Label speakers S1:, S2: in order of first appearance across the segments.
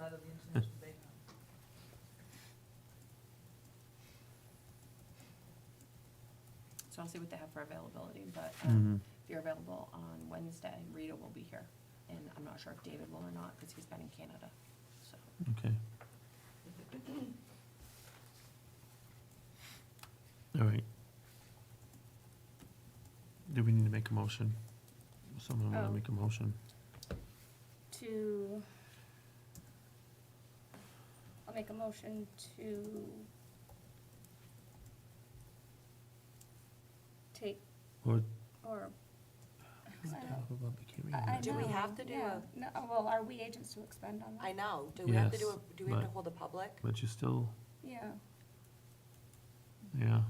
S1: out of the International Date Night.
S2: So I'll see what they have for availability, but um,
S3: Mhm.
S2: if you're available on Wednesday, Rita will be here. And I'm not sure if David will or not, because he's been in Canada, so.
S3: Okay. All right. Do we need to make a motion? Someone want
S2: Oh.
S3: to make a motion?
S4: to, I'll make a motion to take,
S3: Or
S4: or,
S3: I
S4: I
S5: Do we
S4: know,
S5: have to do
S4: yeah. No, well, are we agents to expend on
S5: I
S4: that?
S5: know, do we have to do,
S3: Yes,
S5: a? do we have to
S3: but-
S5: hold a public,
S3: But you still,
S4: Yeah,
S3: yeah,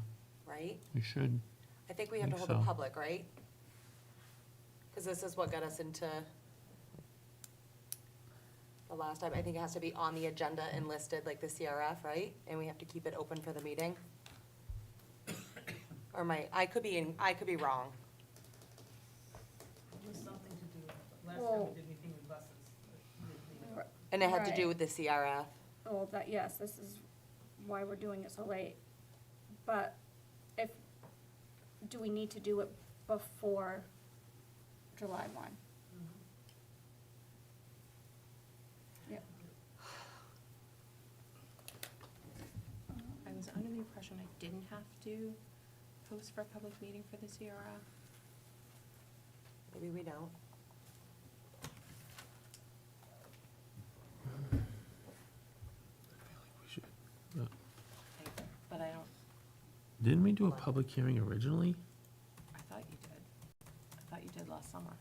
S5: right?
S3: we should.
S5: I think we have to
S3: Think
S5: hold a
S3: so.
S5: public, right? Because this is what got us into the last time, I think it has to be on the agenda and listed like the CRF, right? And we have to keep it open for the meeting? Or my, I could be, in. I could be wrong.
S1: It was something to do, with- last time
S4: Well-
S1: we did anything with buses. but we didn't do
S4: r-
S1: it.
S5: And it had to
S4: Right.
S5: do with the CRF.
S4: well, that, yes, this is why we're doing it so late. But if, do we need to do it before July one? Yep.
S2: I was under the impression I didn't have to post for a public meeting for the CRF.
S5: Maybe we don't.
S2: I- But I don't,
S3: Didn't we do a
S5: Hold on.
S3: public hearing originally?
S2: I thought you did. I thought you did last summer.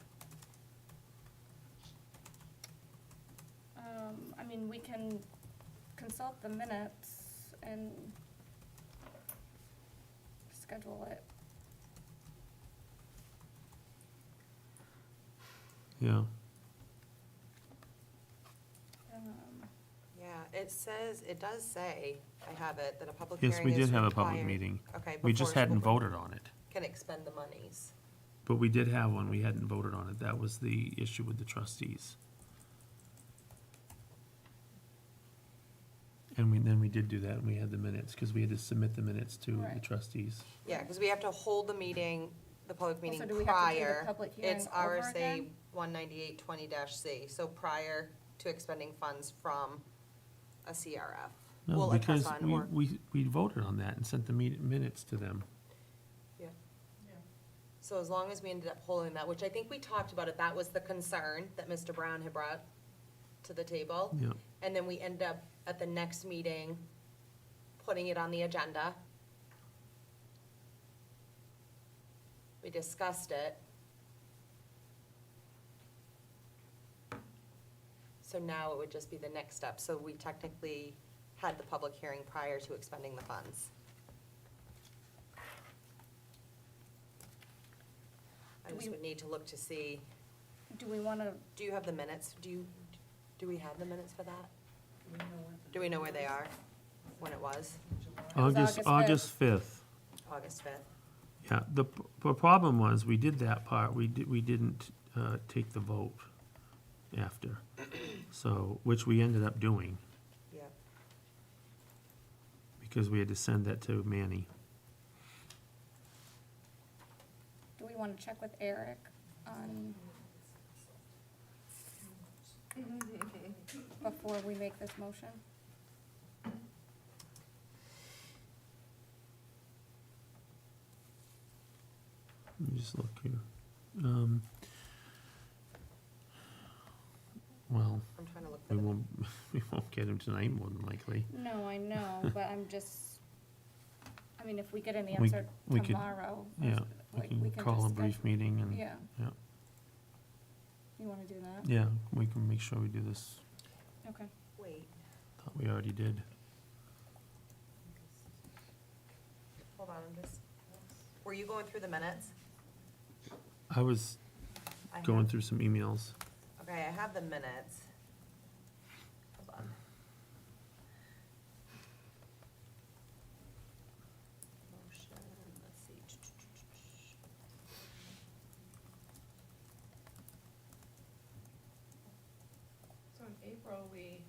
S4: Um, I mean, we can consult the minutes and schedule it.
S3: Yeah.
S4: Um,
S5: Yeah, it says, it does say, I have it, that a public hearing
S3: Yes, we
S5: is
S3: did have a public
S5: required.
S3: meeting.
S5: Okay.
S3: We
S5: before
S3: just
S5: school
S3: hadn't
S5: board
S3: voted on it.
S5: Can expend the monies.
S3: But we did have one, we hadn't voted on it. That was the issue with the trustees. And we, then we did do that, and we had the minutes, because we had to submit the minutes to the
S4: Right.
S3: trustees.
S5: Yeah, because we have to hold the meeting, the public
S4: Well,
S5: meeting
S4: so do
S5: prior.
S4: we have to do the public hearing over
S5: It's RSA
S4: again?
S5: one ninety-eight twenty C, so prior to expending funds from a CRF.
S3: No,
S5: Well, a
S3: because
S5: trust fund
S3: we,
S5: or,
S3: we, we voted on that and sent the meet- minutes to them.
S5: yeah.
S1: Yeah.
S5: So as long as we ended up holding that, which I think we talked about it, that was the concern that Mr. Brown had brought to the table.
S3: Yeah,
S5: And then we end up at the next meeting, putting it on the agenda. We discussed it. So now it would just be the next step. So we technically had the public hearing prior to expending the funds. I
S4: Do
S5: just
S4: we-
S5: would need to look to see,
S4: Do we wanna,
S5: do you have the minutes? Do you, do we have the minutes for that?
S1: Do we know when?
S5: Do we know where they are? When it was?
S1: July.
S4: was
S3: August, August
S4: August
S3: fifth.
S5: August 5th?
S3: Yeah, the, p- the problem was, we did that part, we did, we didn't, uh, take the vote after. So, which we ended up doing,
S5: Yep.
S3: because we had to send that to Manny.
S4: do we wanna check with Eric on before we make this motion?
S3: Let me just look here. Um, well,
S5: I'm trying to look for
S3: we
S5: them.
S3: won't, we won't get him tonight more than likely.
S4: No, I know, but I'm just, I mean, if we get an
S3: We-
S4: answer
S3: we could-
S4: tomorrow,
S3: Yeah,
S4: like,
S3: we
S4: we
S3: can
S4: can
S3: call a
S4: just
S3: brief
S4: schedule.
S3: meeting and,
S4: Yeah.
S3: yeah.
S4: You wanna do that?
S3: yeah, we can make sure we do this.
S4: Okay.
S5: Wait,
S3: Thought we already did.
S5: hold on, I'm just, were you going through the minutes?
S3: I was
S5: I
S3: going
S5: have-
S3: through some emails.
S5: Okay, I have the minutes. Hold on. Motion, let's see.
S6: So in April, we